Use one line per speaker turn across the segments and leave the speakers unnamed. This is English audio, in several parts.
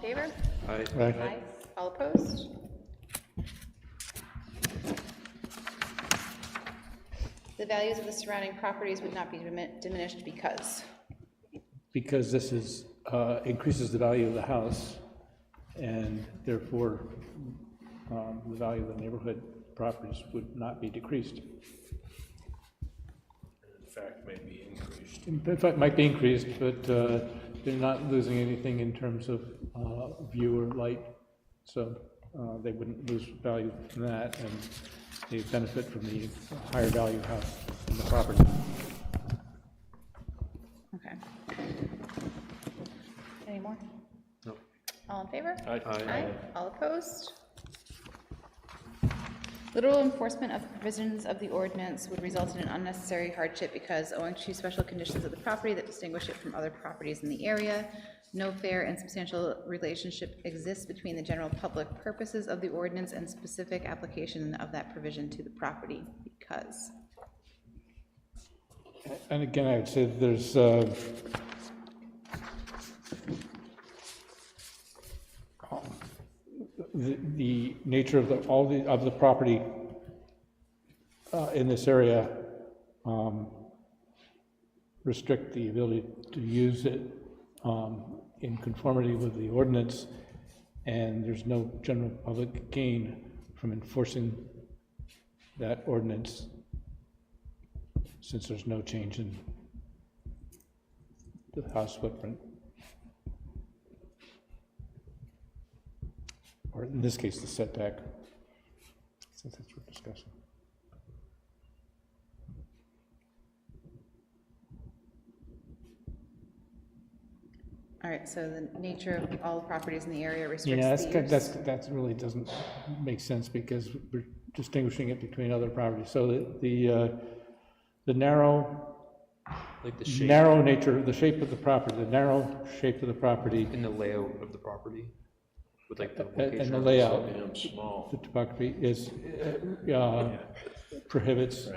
favor?
Aye.
Aye. All opposed? The values of the surrounding properties would not be dimin- diminished because.
because this is, uh, increases the value of the house, and therefore, um, the value of the neighborhood properties would not be decreased.
In fact, may be increased.
In fact, it might be increased, but uh, they're not losing anything in terms of uh, view or light, so uh, they wouldn't lose value from that, and they benefit from the higher value house in the property.
Okay. Any more?
No.
All in favor?
Aye. Aye.
All opposed? Literal enforcement of the provisions of the ordinance would result in an unnecessary hardship because owing to special conditions of the property that distinguish it from other properties in the area, no fair and substantial relationship exists between the general public purposes of the ordinance and specific application of that provision to the property because.
And again, I would say that there's, uh, the, the nature of the, all the, of the property uh, in this area um, restrict the ability to use it um, in conformity with the ordinance, and there's no general public gain from enforcing that ordinance since there's no change in the house footprint. Or in this case, the setback, since that's what we're discussing.
All right, so the nature of all properties in the area restricts
Yeah,
the
that's,
use.
good- that's, that's really doesn't make sense because we're distinguishing it between other properties. So the- the, uh, the narrow,
like the shape
narrow nature, the shape of the property, the narrow shape of the property
and the layout of the property with like the
a- and
location.
the
of
layout
Damn small.
the topography is, uh, uh, prohibits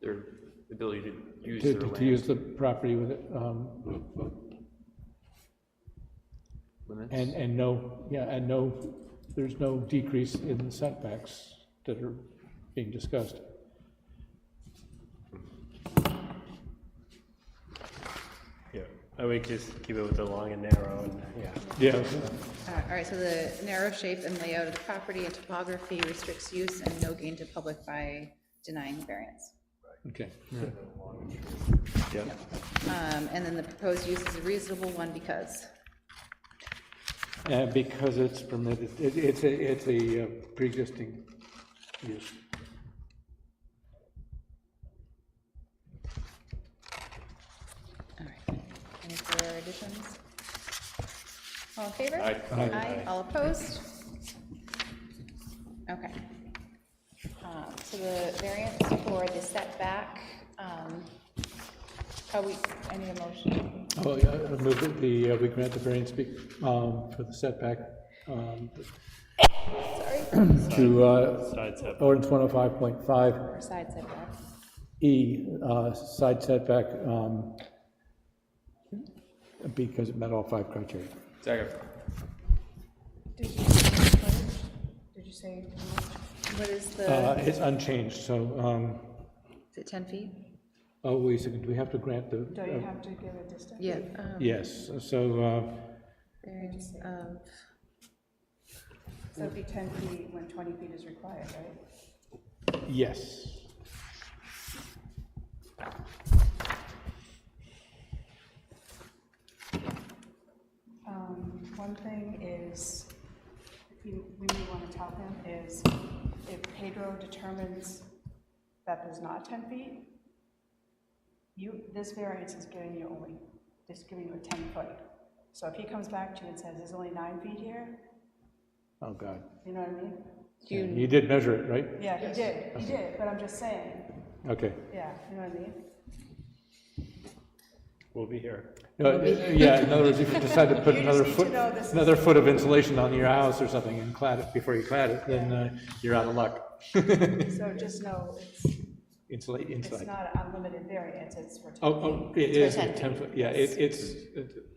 Their ability to use
to,
their
to to
land
use the property with, um, and,
limits.
and no, yeah, and no, there's no decrease in the setbacks that are being discussed.
Yeah, I would just keep it with the long and narrow, and, yeah.
Yeah.
Uh, All right, so the narrow shape and layout of the property and topography restricts use and no gain to public by denying variance.
Okay.
Um, And then the proposed use is a reasonable one because,
And because it's permitted, it, it's a, it's a uh, pre-existing use.
all right. Any further additions? All in favor?
Aye.
Aye.
All opposed? Okay. Um, So the variance for the setback, um, oh, we, I need a motion.
Oh, yeah, I move that the, uh, we grant the variance, be- um, for the setback, um,
Sorry,
to, uh,
Side setback.
ordinance one oh five point five,
or side setback.
E, uh, side setback, um, because it met all five criteria.
Second.
Did you say frontage? Did you say how much?
What is
Uh,
the,
It's unchanged, so, um,
is it 10 feet?
oh, wait a second, do we have to grant the? uh,
Do you have to give a distance?
Yeah. um,
Yes, so, uh,
Variance of,
So it'd be ten feet when twenty feet is required, right?
uh, yes.
Um, One thing is, if you, we may want to tell him, is if Pedro determines that there's not ten feet, you, this variance is giving you only, just giving you a ten foot. So if he comes back to you and says, there's only nine feet here,
Oh, God.
you know what I mean?
you-
You did measure it, right?
Yeah, he did, he did, but I'm just saying,
Okay.
yeah, you know what I mean?
We'll be here.
No, Uh, Yeah, in other words, if you decide to put
You just
another
need to
foot,
know this is-
another foot of insulation on your house or something and clad it, before you clad it, then uh, you're out of luck.
So just know, it's,
Insulate
it's
inside.
not an unlimited variance, it's for
Oh, oh, it
for
is, a
10 feet.
10 foot, yeah, it- it's, it-